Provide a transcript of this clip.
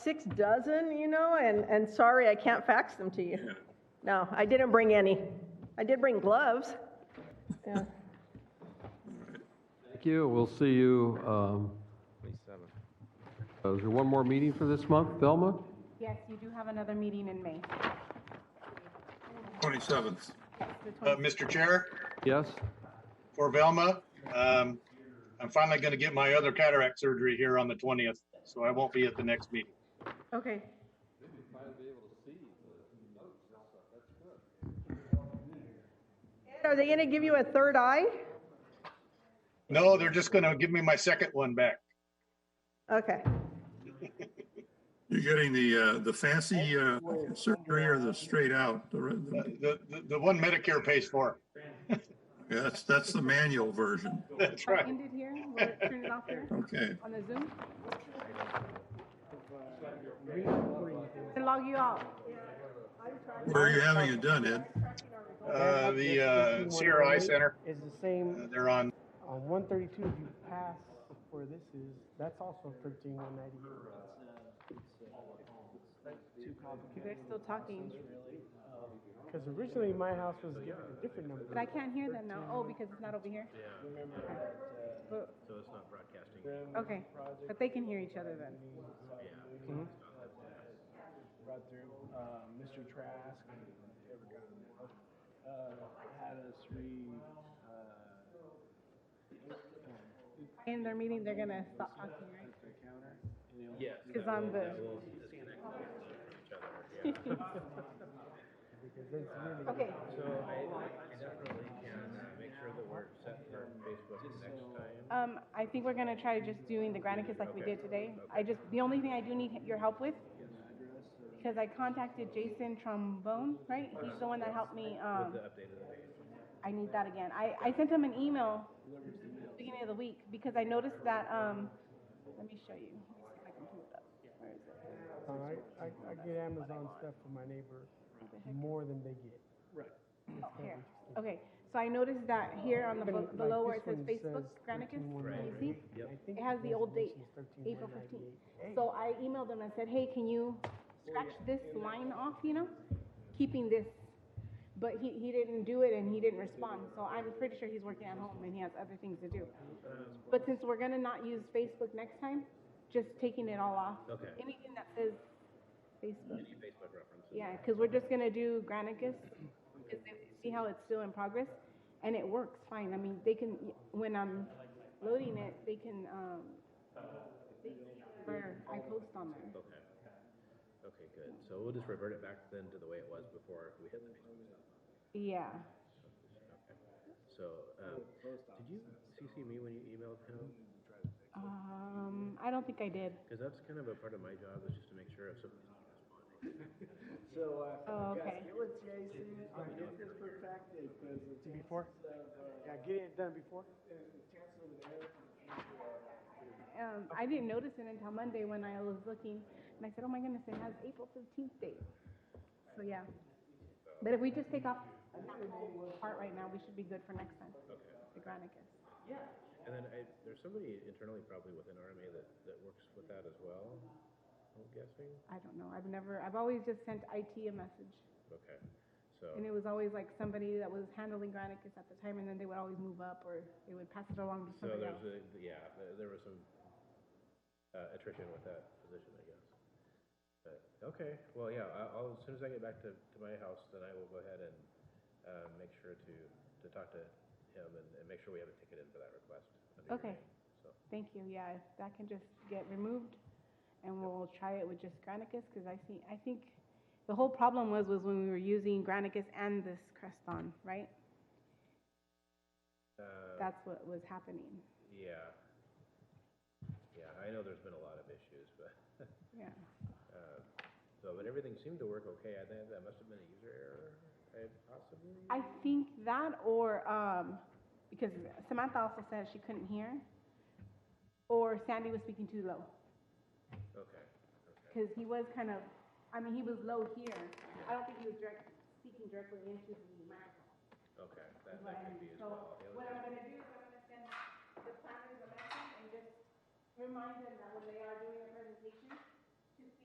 six dozen, you know, and, and sorry, I can't fax them to you. No, I didn't bring any. I did bring gloves. Yeah. Thank you, we'll see you, um, uh, is there one more meeting for this month, Thelma? Yes, you do have another meeting in May. 27th. The Uh, Mr. Chair, Yes? for Velma, um, I'm finally going to get my other cataract surgery here on the 20th, so I won't be at the next meeting. Okay. Ed, Are they going to give you a third eye? No, they're just going to give me my second one back. Okay. You're getting the, uh, the fancy, uh, surgery or the straight out? The re- The, the- Uh, the- the, the one Medicare pays for. yeah, That's, that's the manual version. That's I'll right. end it here. Will it turn it off here Okay. on the Zoom? To log you out. Where are you having it done, Ed? Uh, the, uh, CRI Center, is the uh, same they're on, on one thirty-two, if you pass where this is, that's also thirteen one ninety. You guys still talking, Cause originally my house was given a different number. but I can't hear them now. Oh, because it's not over here? Yeah. So it's not broadcasting. Okay, but they can hear each other then. Mhm. brought through, uh, Mr. Trask, and whoever got in there, uh, had us re, uh, In their meeting, they're gonna stop talking, right? the counter, and they Because I'm the. Okay, So I, I definitely can uh, make sure that we're set for Facebook next time. um, I think we're gonna try just doing the Granicus like we did today. I just, the only thing I do need your help with, because I contacted Jason Trombone, right? He's the one that helped me, um, I need that again. I, I sent him an email beginning of the week, because I noticed that, um, let me show you. Let me see if I can pull it up. Where is it? Uh, I, I, I get Amazon stuff from my neighbor more than they get. Oh, here. Okay, so I noticed that here on the, But bel- like below where it this says one Facebook says Granicus, you 13,198. see? I think It has the old date, resolution's 13,198. April fifteenth. Hey, So I emailed them and said, hey, can you scratch this line off, you know? Keeping this, but he, he didn't do it and he didn't respond, so I'm pretty sure he's working at home and he has other things to do. But since we're gonna not use Facebook next time, just taking it all off. Okay. Anything that says Facebook. Facebook references. Yeah, because we're just gonna do Granicus, 'cause they- see how it's still in progress, and it works fine. I mean, they can, when I'm loading it, they can, um, they can see where I post on there. Okay. Okay, good. So we'll just revert it back then to the way it was before we hit the Facebook stuff. Yeah. So, um, did you CC me when you emailed him? Um, I don't think I did. Because that's kind of a part of my job is just to make sure if something's not responding. So, uh, Oh, guys, okay. get with Jason, uh, get this perfected, because uh, the chances Before? of, Yeah, getting it done before? uh, the chances of an error Um, I didn't notice it until Monday when I was looking, and I said, oh my goodness, it has April fifteenth date. So, yeah. But if we just take off that whole part right now, we should be good for next time. Okay. The Granicus. And then I, there's somebody internally probably within RMA that, that works with that as well, I'm guessing. I don't know. I've never, I've always just sent IT a message. Okay, so. And it was always like somebody that was handling Granicus at the time, and then they would always move up or they would pass it along to So somebody there's else. a, yeah, there- there was some uh, attrition with that position, I guess. But, okay, well, yeah, I- I'll, as soon as I get back to, to my house, then I will go ahead and uh, make sure to, to talk to him and, and make sure we have a ticket in for that request. under your Okay. name, So, Thank you. Yeah, if that can just get removed, and we'll try it with just Granicus, because I see, I think the whole problem was, was when we were using Granicus and this Creston, right? uh, That's what was happening. yeah. Yeah, I know there's been a lot of issues, but, Yeah. uh, so, but everything seemed to work okay. I think that must have been a user error, eh, possibly? I think that or, um, because Samantha also said she couldn't hear, or Sandy was speaking too low. Okay, okay, because he was kind of, I mean, he was low here. I don't think he was direct, speaking directly into the mic. okay, that, is what I that could mean. be as So well. The other what thing- I'm gonna do is I'm gonna send the planners a message and just remind them that when they are doing a presentation,